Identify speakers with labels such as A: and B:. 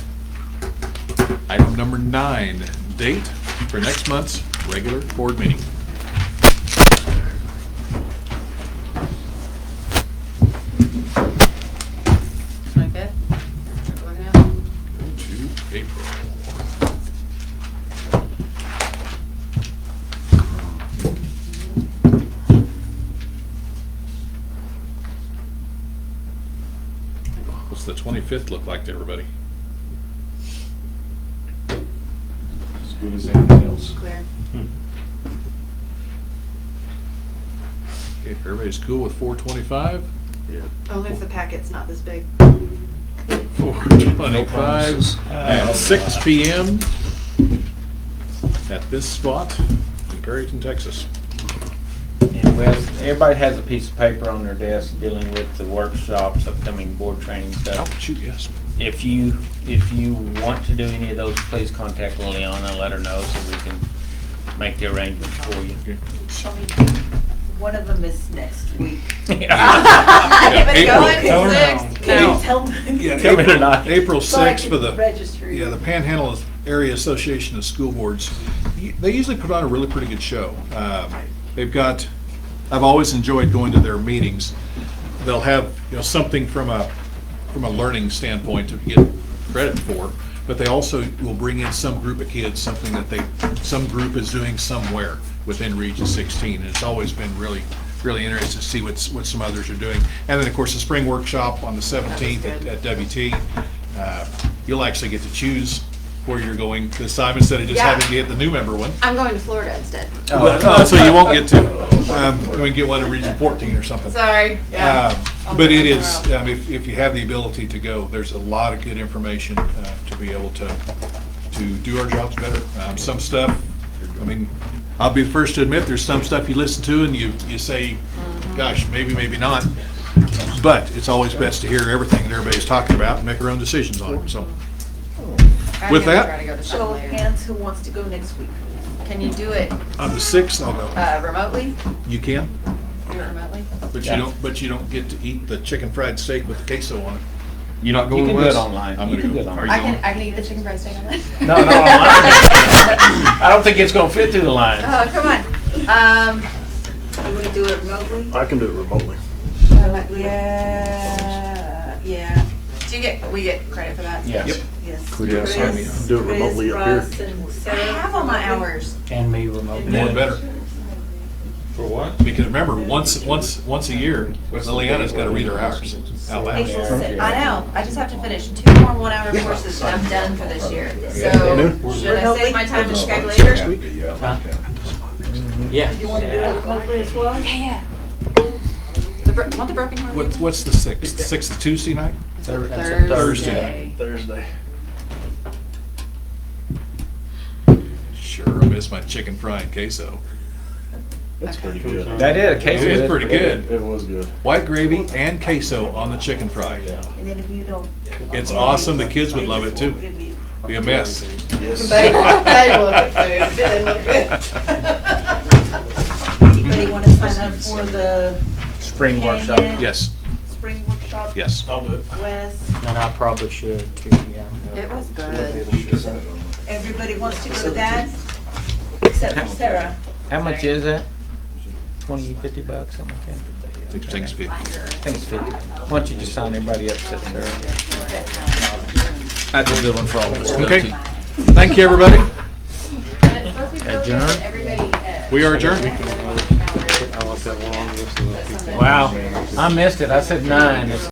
A: Number nine, date for next month's regular board meeting.
B: Twenty-fifth? Everyone else?
A: Go to April. What's the 25th look like to everybody?
C: As good as anything else.
B: Clear.
A: Okay, if everybody's cool with 425?
D: Only if the packet's not this big.
A: 425 at 6 PM at this spot in Perryton, Texas.
E: And well, everybody has a piece of paper on their desk dealing with the workshops, upcoming board training
A: Oh,
E: stuff.
A: shoot, yes.
E: If you, if you want to do any of those, please contact Liliana, let her know so we can make the arrangements for you.
A: Okay.
F: Shall we, one of them is next week.
A: Yeah,
D: Keep it
A: April.
D: going,
E: Tell her
D: six.
F: Can
D: Now.
F: you tell me?
A: Yeah,
E: Tell me
A: April-
E: tonight.
A: April
F: So I
A: 6th
F: can
A: for the,
F: Register.
A: yeah, the Panhandle Area Association of School Boards. Y- They usually put on a really pretty good show. Um, They've got, I've always enjoyed going to their meetings. They'll have, you know, something from a, from a learning standpoint to get credit for, but they also will bring in some group of kids, something that they, some group is doing somewhere within Region 16. And it's always been really, really interesting to see what's, what some others are doing. And then, of course, the spring workshop on the 17th at at WT. Uh, You'll actually get to choose where you're going this time instead of just
D: Yeah.
A: having to get the new member one.
D: I'm going to Florida instead.
E: Oh,
A: Well, Oh, So you won't get to, um, go and get one in Region 14 or something. Um,
D: Sorry. Yeah.
A: But it is, um, if, if you have the ability to go, there's a lot of good information uh, to be able to, to do our jobs better. Um, Some stuff, I mean, I'll be the first to admit, there's some stuff you listen to and you, you say,
D: Mm-hmm.
A: gosh, maybe, maybe not. But it's always best to hear everything that everybody's talking about and make our own decisions on it, so. With that-
B: I gotta go to
F: Show
B: something
F: of
B: later.
F: hands who wants to go next week.
D: Can you do it
A: On the 6th, I'll go.
D: uh, remotely?
A: You can,
D: Do it remotely?
A: but you don't, but you don't get to eat the chicken fried steak with the queso on it.
C: You're not
E: You
C: going
E: can
C: with
E: do it
C: us?
E: online.
A: I'm
E: You
A: gonna
E: can do
A: go.
E: it
A: Are
E: online.
A: you
D: I
A: going?
D: can, I can eat the chicken fried steak on that.
E: No, no, online. I don't think it's gonna fit through the line.
D: Oh, come on. Um,
F: Do we do it remotely?
G: I can do it remotely.
F: Yeah, yeah,
D: do you get, we get credit for that?
E: Yes.
F: yes.
C: Yes, I mean,
F: Chris,
G: do it remotely
F: Chris,
G: up here.
F: Russ, and
D: I
F: Sarah
D: have all my
F: remotely.
D: hours.
E: And me remotely.
A: More the better.
C: For what?
A: Because remember, once, once, once a year, Liliana's gotta read her hours out
D: April
A: loud.
D: sixth. I know, I just have to finish two more one-hour courses and I'm done for this year. So, should I save my time to Skype later?
E: Yeah.
F: You want to do it remotely as well?
D: The, bro- want the broken heart?
A: What's, what's the sixth? Sixth is Tuesday night? Thursday.
G: Thursday.
A: Sure, I miss my chicken fried queso.
G: That's pretty good.
E: That is,
A: It
E: Casey.
A: is pretty good.
G: It was good.
A: White gravy and queso on the chicken fried.
F: And then if you don't.
A: It's awesome. The kids would love it too. Be a mess.
G: Yes.
F: Anybody want to sign up for the
E: Spring workshop.
F: Canyon
A: Yes,
F: spring workshop?
A: yes.
F: West,
H: And I probably should too, yeah.
B: It was good.
F: everybody wants to go to that, except for Sarah.
E: How much is that? Twenty, fifty bucks, something like that?
A: Six things be-
E: I think it's fifty. Why don't you just sign everybody up, sit there?
C: That's a good one for all of us.
A: Okay, thank you, everybody.
B: And it's supposed to be broken,
E: Adjourn?
B: and everybody, uh,
A: We are adjourned.
B: has their own hours,
E: Wow, I missed it. I said nine. It's